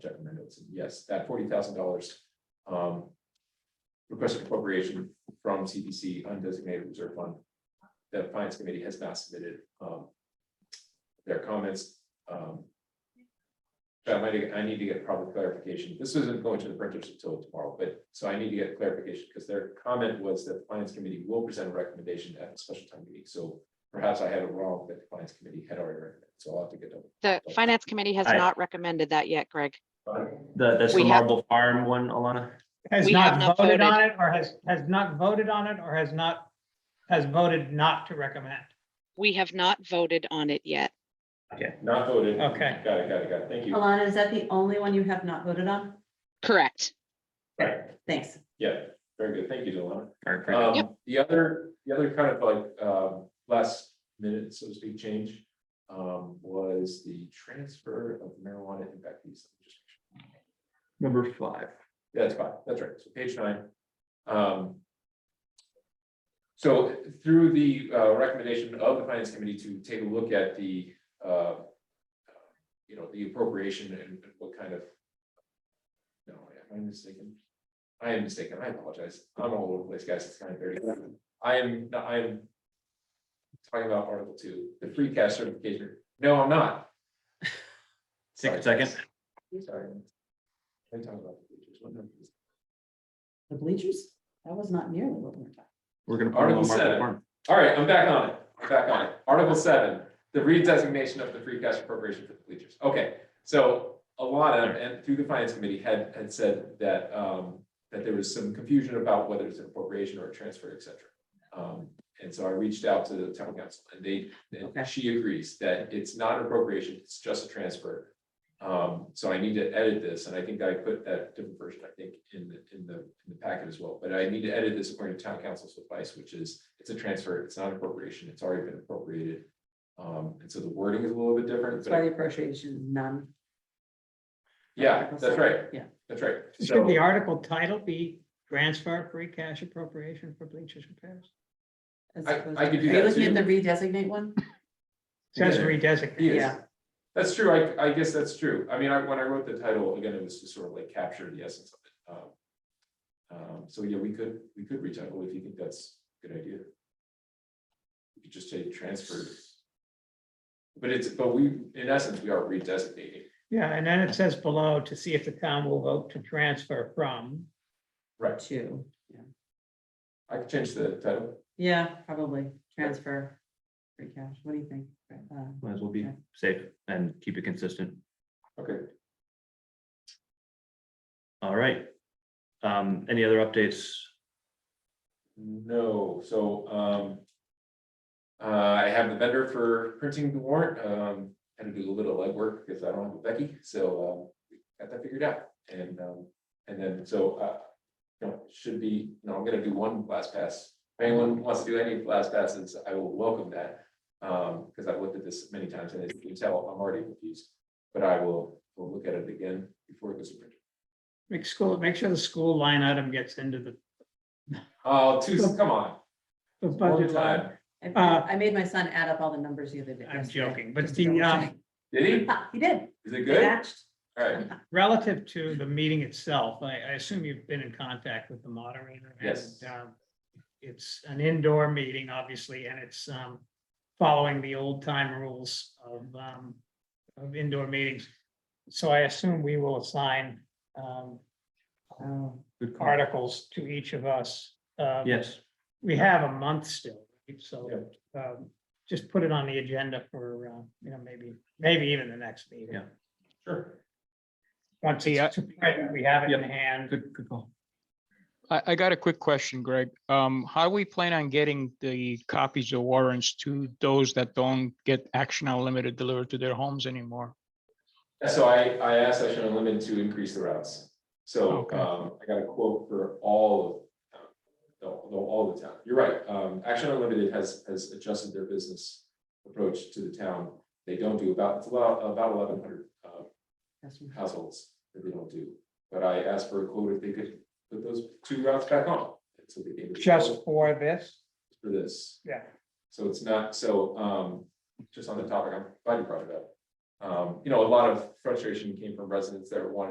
check my notes, yes, that forty thousand dollars. Um. Requested appropriation from CPC undesignated reserve fund. The finance committee has not submitted, um. Their comments, um. so I might, I need to get probably clarification, this isn't going to the printers until tomorrow, but, so I need to get clarification, because their comment was that the finance committee will present a recommendation at a special time meeting, so. Perhaps I had it wrong, that the finance committee had already, recommended, so I'll have to get them. The finance committee has I- not recommended that yet, Greg. The, that's the We have- Marble Farm one, Alana? Has We have not not voted voted. on it or has, has not voted on it or has not, has voted not to recommend. We have not voted on it yet. Not voted. Okay. Got it, got it, got it. Thank you. Alana, is that the only one you have not voted on? Correct. Right, Thanks. yeah, very good. Thank you, Delana. Or- or- Um, Yep. The other, the other kind of like, um, last minute, so to speak, change um, was the transfer of marijuana impact fees. Number five. Yeah, That's fine, that's right, so page nine. Um. So through the uh recommendation of the finance committee to take a look at the uh. You know, the appropriation and what kind of. No, am I mistaken? I am mistaken, I apologize, I'm all over the place, guys, it's nine thirty. I am, I am. Talking about article two, the free cash certification, no, I'm not, Six second. sorry. I'm talking about the bleachers, what number is it? The bleachers? That was not nearly what we were talking. We're gonna. put Article them on Marble seven. Farm. All right, I'm back on it. I'm back on it. Article seven, the redesignation of the free cash appropriation for the bleachers. Okay, so Alana and through the finance committee had had said that um that there was some confusion about whether it's an appropriation or a transfer, et cetera. Um, and so I reached out to the town council and they, Okay. and she agrees that it's not an appropriation, it's just a transfer. Um, so I need to edit this and I think I put that different version, I think, in the, in the, in the packet as well. But I need to edit this according to town council's advice, which is it's a transfer, it's not appropriation, it's already been appropriated. Um, and so the wording is a little bit different, That's why the but appropriation is none. yeah, that's right, Yeah. that's right. Should the So, article title be transfer free cash appropriation for bleachers repairs? as I- opposed I to- could do Are you that looking at the too. redesignate one? Says Yeah. redesignate. yes, yeah. that's true, I, I guess that's true. I mean, I, when I wrote the title, again, it was to sort of like capture the essence of it. Um, Um, so yeah, we could, we could retitle if you think that's a good idea. We could just say transfer. But it's, but we, in essence, we are redesignating, Yeah, and then it says below to see if the town will vote to transfer from. right? Two. Yeah. I could change the title. Yeah, probably. Transfer. Free cash. What do you think? Uh, Might as well be Okay. safe and keep it consistent. Okay, All right. Um, any other updates? no, so, um. Uh, I have the vendor for printing the warrant, um, had to do a little legwork because I don't have a Becky, so, um, got that figured out. And, um, and then, so, uh, you know, should be, no, I'm gonna do one last pass. If anyone wants to do any last passes, I will welcome that. Um, because I've looked at this many times and as you can tell, I'm already confused, but I will, will look at it again before it goes to print. Make school, make sure the school line item gets into the- Oh, two, come on, the one budget line. time. I- Uh, I made my son add up all the numbers the other day. I'm yesterday, joking, but just to the, double um, check. Did he? He did. Is it It good? matched. All right, Relative to the meeting itself, I, I assume you've been in contact with the moderator. and, Yes. um, It's an indoor meeting, obviously, and it's, um, following the old time rules of, um, of indoor meetings. So I assume we will assign, um, Oh, Good call. articles to each of us. Um, Yes, We have a month still, right? so, Yeah. um, just put it on the agenda for, uh, you know, maybe, maybe even the next meeting. Yeah. sure. Once the, uh, we have it in hand. good, good call. I, I got a quick question, Greg. Um, how we plan on getting the copies of warrants to those that don't get Action Unlimited delivered to their homes anymore? Yeah, So I, I asked Action Unlimited to increase the routes. So, Okay. um, I got a quote for all of, um, no, no, all of the town. You're right. Um, Action Unlimited has, has adjusted their business approach to the town. They don't do about, it's about, about eleven hundred, uh, that's from- households that they don't do. But I asked for a quote if they could put those two routes back on. And So they gave me a Just quote for this? For this. Yeah. So it's not, so, um, just on the topic, I'm glad you brought it up. Um, you know, a lot of frustration came from residents that wanted